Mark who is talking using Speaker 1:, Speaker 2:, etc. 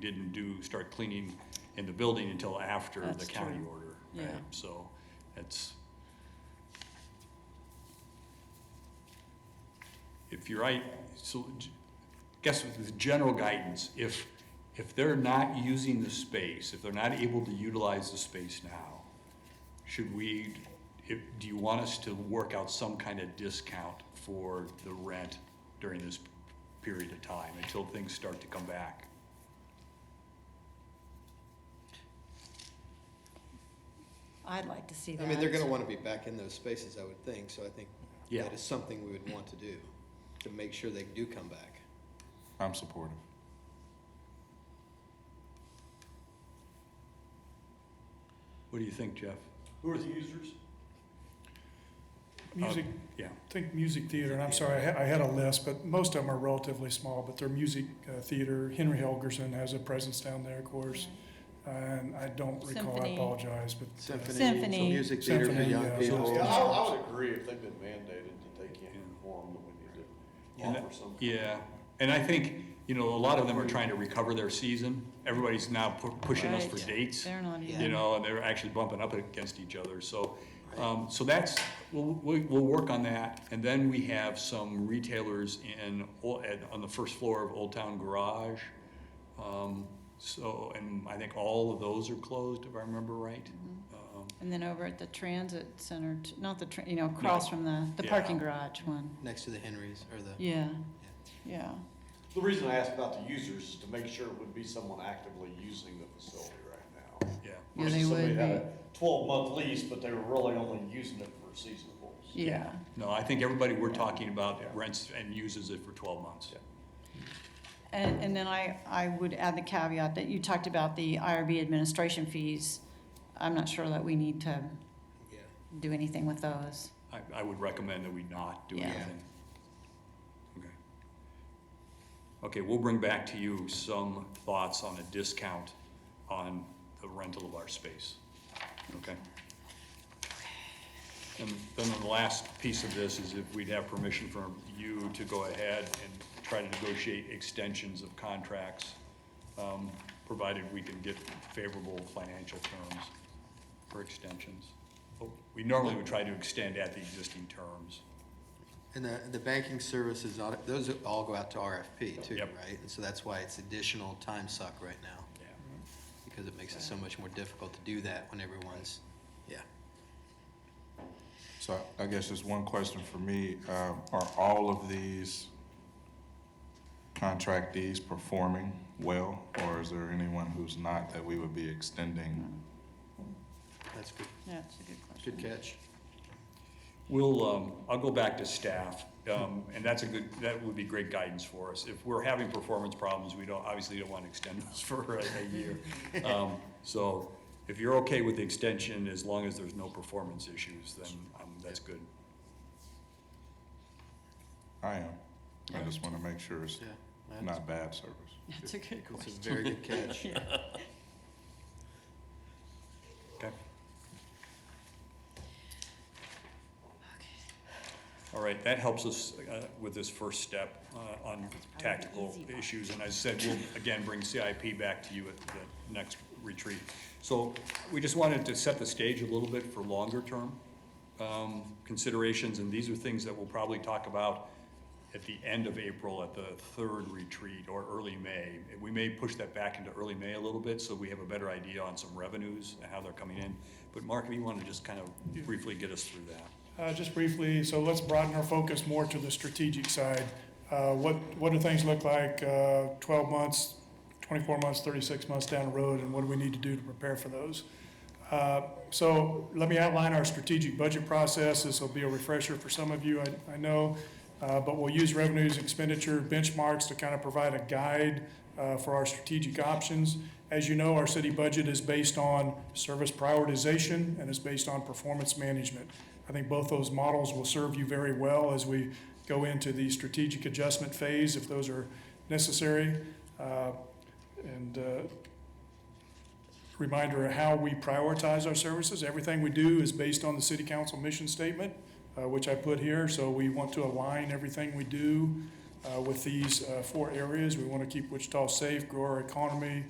Speaker 1: didn't do, start cleaning in the building until after the
Speaker 2: That's
Speaker 1: county
Speaker 2: true.
Speaker 1: order, right?
Speaker 2: Yeah.
Speaker 1: So, that's. If you're right, so, g- guess with the general guidance, if, if they're not using the space, if they're not able to utilize the space now, should we, if, do you want us to work out some kind of discount for the rent during this period of time until things start to come back?
Speaker 2: I'd like to see that.
Speaker 3: I mean, they're gonna wanna be back in those spaces, I would think, so I think
Speaker 1: Yeah.
Speaker 3: that is something we would want to do, to make sure they do come back.
Speaker 4: I'm supportive.
Speaker 1: What do you think, Jeff?
Speaker 5: Who are the users?
Speaker 6: Music,
Speaker 1: Uh, Yeah,
Speaker 6: think music theater, and I'm sorry, I had, I had a list, but most of them are relatively small, but they're music uh, theater. Henry Helgerson has a presence down there, of course. And I don't recall, I
Speaker 2: Symphony.
Speaker 6: apologize, but. uh,
Speaker 2: Symphony.
Speaker 3: Music theater for
Speaker 6: Symphony,
Speaker 3: young
Speaker 6: yeah.
Speaker 3: people.
Speaker 5: Yeah, I, I would agree if they've been mandated that they can't perform, that we
Speaker 1: Yeah.
Speaker 5: need to offer some.
Speaker 1: yeah. And I think, you know, a lot of them are trying to recover their season. Everybody's now pu- pushing us for
Speaker 2: Right.
Speaker 1: dates.
Speaker 2: They're not
Speaker 1: you
Speaker 2: even,
Speaker 1: know, and they're actually bumping up against each other, so, um, so that's, we'll, we- we'll work on that, and then we have some retailers in, Ol- at, on the first floor of Old Town Garage. Um, so, and I think all of those are closed, if I remember right.
Speaker 2: Mm-hmm.
Speaker 1: Um,
Speaker 2: and then over at the transit center, t- not the, tra- you know, across from the, the
Speaker 1: Yeah.
Speaker 2: parking garage one.
Speaker 3: Next to the Henrys, or the,
Speaker 2: Yeah, yeah.
Speaker 5: The reason I asked about the users is to make sure it would be someone actively using the facility right now.
Speaker 1: Yeah,
Speaker 2: Yeah,
Speaker 5: Versus
Speaker 2: they
Speaker 5: somebody
Speaker 2: would
Speaker 5: had a Twelve month lease, but they were really only using it for seasonals.
Speaker 2: Yeah,
Speaker 1: no, I think everybody we're talking about rents and uses it for twelve months.
Speaker 2: and, and then I, I would add the caveat that you talked about the IRB administration fees. I'm not sure that we need to
Speaker 3: yeah.
Speaker 2: do anything with those.
Speaker 1: I, I would recommend that we not do
Speaker 2: Yeah.
Speaker 1: anything. Okay. Okay, we'll bring back to you some thoughts on a discount on the rental of our space, okay? And then the last piece of this is if we'd have permission from you to go ahead and try to negotiate extensions of contracts, um, provided we can get favorable financial terms for extensions. But We normally would try to extend at the existing terms.
Speaker 3: And the, the banking services, audit- those all go out to RFP too,
Speaker 1: Yep.
Speaker 3: right? And so that's why it's additional time suck right now,
Speaker 1: Yeah.
Speaker 3: because it makes it so much more difficult to do that when everyone's, yeah.
Speaker 4: So I I guess just one question for me, um, are all of these contractees performing well? Or is there anyone who's not that we would be extending?
Speaker 3: That's good,
Speaker 2: That's a good question.
Speaker 3: good catch.
Speaker 1: We'll, um, I'll go back to staff, um, and that's a good, that would be great guidance for us. If we're having performance problems, we don't, obviously don't want to extend those for a a year. Um, So if you're okay with the extension, as long as there's no performance issues, then um, that's good.
Speaker 4: I am. I just want to make sure it's
Speaker 3: Yeah. that's-
Speaker 4: not bad service.
Speaker 2: That's a good question.
Speaker 3: It's a very good catch.
Speaker 1: Okay. All right, that helps us uh, with this first step uh, on tactical issues. And as I said, we'll again bring CIP back to you at the next retreat. So we just wanted to set the stage a little bit for longer term um, considerations. And these are things that we'll probably talk about at the end of April at the third retreat or early May. We may push that back into early May a little bit so we have a better idea on some revenues and how they're coming in. But Mark, if you want to just kind of briefly get us through that.
Speaker 6: Uh, just briefly, so let's broaden our focus more to the strategic side. Uh, what, what do things look like, uh, twelve months, twenty-four months, thirty-six months down the road, and what do we need to do to prepare for those? Uh, so let me outline our strategic budget process. This will be a refresher for some of you, I, I know. Uh, but we'll use revenues, expenditure, benchmarks to kind of provide a guide, uh, for our strategic options. As you know, our city budget is based on service prioritization and is based on performance management. I think both those models will serve you very well as we go into the strategic adjustment phase, if those are necessary. Uh, And uh, reminder of how we prioritize our services. Everything we do is based on the city council mission statement, uh, which I put here. So we want to align everything we do uh, with these uh, four areas. We want to keep Wichita safe, grow our economy,